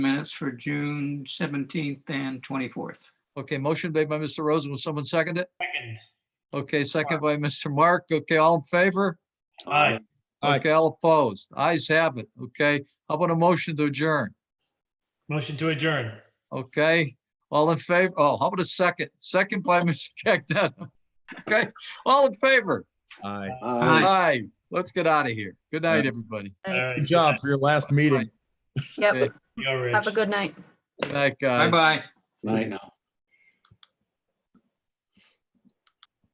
minutes for June 17th and 24th. Okay, motion made by Mr. Rosen. Will someone second it? Second. Okay, second by Mr. Mark. Okay, all in favor? Aye. Aye. Okay, all opposed. Eyes have it. Okay, how about a motion to adjourn? Motion to adjourn. Okay, all in favor? Oh, how about a second? Second by Mr. Cagneto. Okay, all in favor? Aye. Aye. Aye. Let's get out of here. Good night, Aye. everybody. All right. Good job for your last meeting. Okay, Yep, Go, Rich. have a good night. Good night, guys. Bye-bye. Night now.